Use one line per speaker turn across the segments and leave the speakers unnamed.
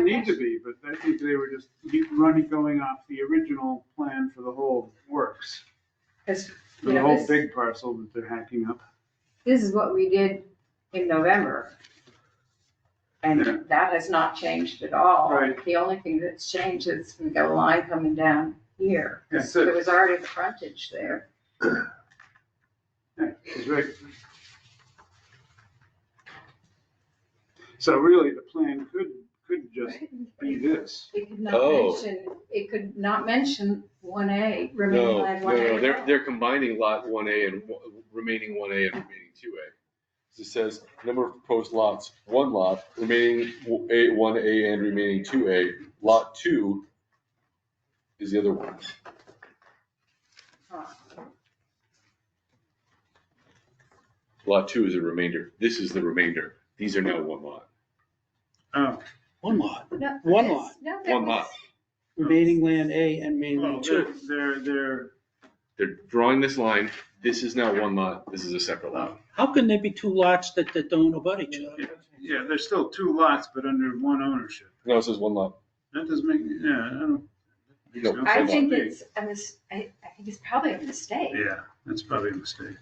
need to be, but I think they were just get- running, going off the original plan for the whole works.
Because,
For
you
the
know,
whole
this,
big parcel that they're hacking up.
this is what we did in November.
Yeah.
And that has not changed at all.
Right.
The only thing that's changed is we've got a line coming down here.
That's
There
it.
was already the frontage there.
Yeah, It's right. So really, the plan could, could just be this.
It could not
Oh.
mention, it could not mention one A, remaining
No,
line
no,
one
no, they're,
A.
they're combining lot one A and w- remaining one A and remaining two A. It says number of proposed lots, one lot, remaining w- A, one A and remaining two A, lot two is the other one. Lot two is a remainder. This is the remainder. These are now one lot.
Oh,
One lot,
No,
One
it's-
lot.
no, there
One
was-
lot.
remaining land A and remaining
well,
land
they're,
two.
they're, they're,
They're drawing this line. This is now one lot. This is a separate lot.
How can there be two lots that, that don't abut each other?
yeah, there's still two lots, but under one ownership.
No, it says one lot.
That doesn't make, yeah, I don't.
No,
Sounds
I
one lot.
think it's, I was, I, I think it's probably a mistake.
Yeah, that's probably a mistake.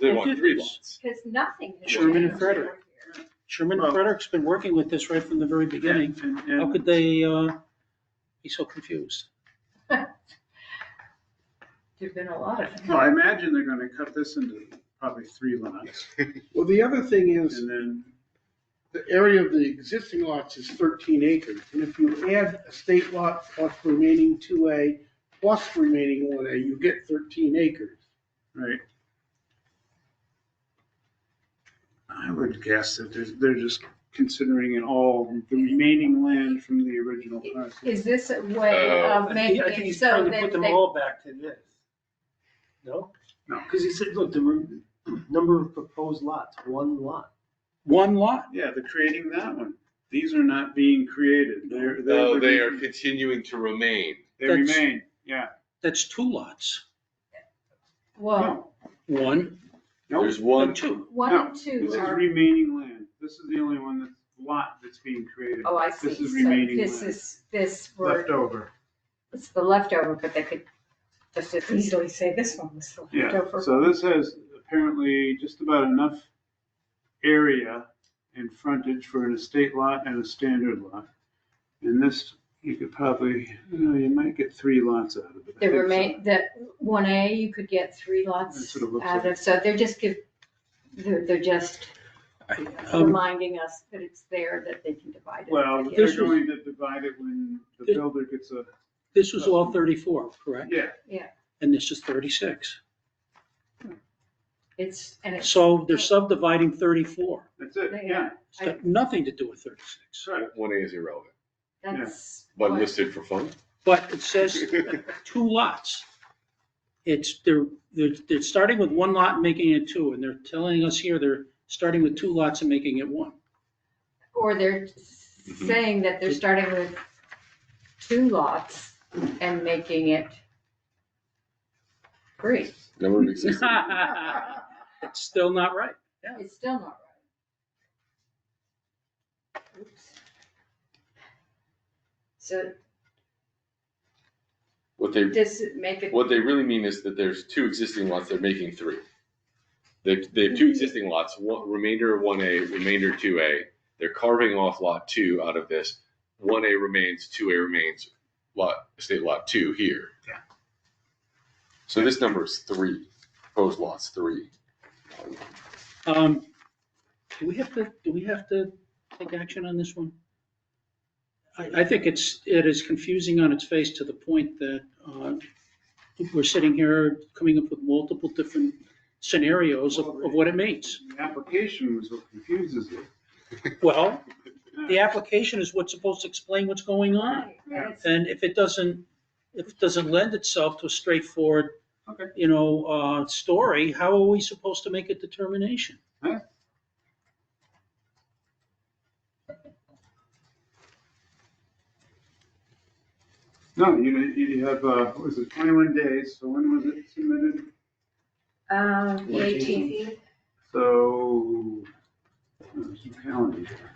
They want three lots.
Because nothing. has
Sherman
and
changed
Frederick.
over here.
Sherman
Well-
Frederick's been working with this right from the very beginning.
And- and-
How could they, uh, be so confused?
There've been a lot of.
Well, I imagine they're gonna cut this into probably three lots,
Well, the other thing is,
and then,
the area of the existing lots is thirteen acres, and if you add a state lot plus remaining two A plus remaining one A, you get thirteen acres.
right? I would guess that there's, they're just considering it all, the remaining land from the original parcel.
Is this a way
Uh,
of making it so that they,
all back to this. No?
No.
because he said, look, the number of proposed lots, one lot. One lot?
Yeah, they're creating that one. These are not being created, they're, they're.
No, they are continuing to remain.
They remain, yeah.
That's two lots.
well,
No,
One
nope.
There's one,
and two.
one
No,
and
This
two
is
are,
remaining land. This is the only one that's lot that's being created,
oh, I
this
see.
is
So
remaining
This
land.
is, this
left
were,
over.
it's the leftover, but they could just as easily say this one was the
Yeah,
leftover.
so this has apparently just about enough area and frontage for an estate lot and a standard lot. And this, you could probably, you know, you might get three lots out of it. I
The
think so.
remain, the one A, you could get three
That's
lots
what uh, it looks
out
like.
of, so they're just give, they're, they're just
Um,
reminding us that it's there, that they can divide it.
Well,
again.
they're
This was-
going to divide it when the
This-
builder gets a,
This was all thirty-four, correct?
yeah,
And this is thirty-six.
It's, and it's,
So they're subdividing thirty-four.
that's it,
Yeah.
yeah.
It's got nothing to do with thirty-six.
Right.
one A is irrelevant,
that's.
but
what-
listed for fun.
But it says two lots. It's, they're, they're, they're starting with one lot and making it two, and they're telling us here they're starting with two lots and making it one.
Or they're
Mhm.
saying that they're starting with two lots and making it three.
Number of existing.
Uh-huh. It's still not right.
It's still not right. Oops. So
What they,
does it make it,
what they really mean is that there's two existing lots, they're making three. They, they have two existing lots, one, remainder of one A, remainder two A. They're carving off lot two out of this. One A remains, two A remains, lot, state lot two here.
Yeah.
So this number is three, proposed lots, three.
Um, do we have to, do we have to take action on this one? I, I think it's, it is confusing on its face to the point that, uh, we're sitting here coming up with multiple different scenarios of, of what it means.
The application was what confuses it.
Well, the application is what's supposed to explain what's going on.
Right, and it's-
And if it doesn't, if it doesn't lend itself to a straightforward,
Okay.
you know, uh, story, how are we supposed to make a determination?
Huh? No, you, you have, uh, what was it, twenty-one days, so when was it submitted?
um, the 18th.
So, there's uh, some calendar. here.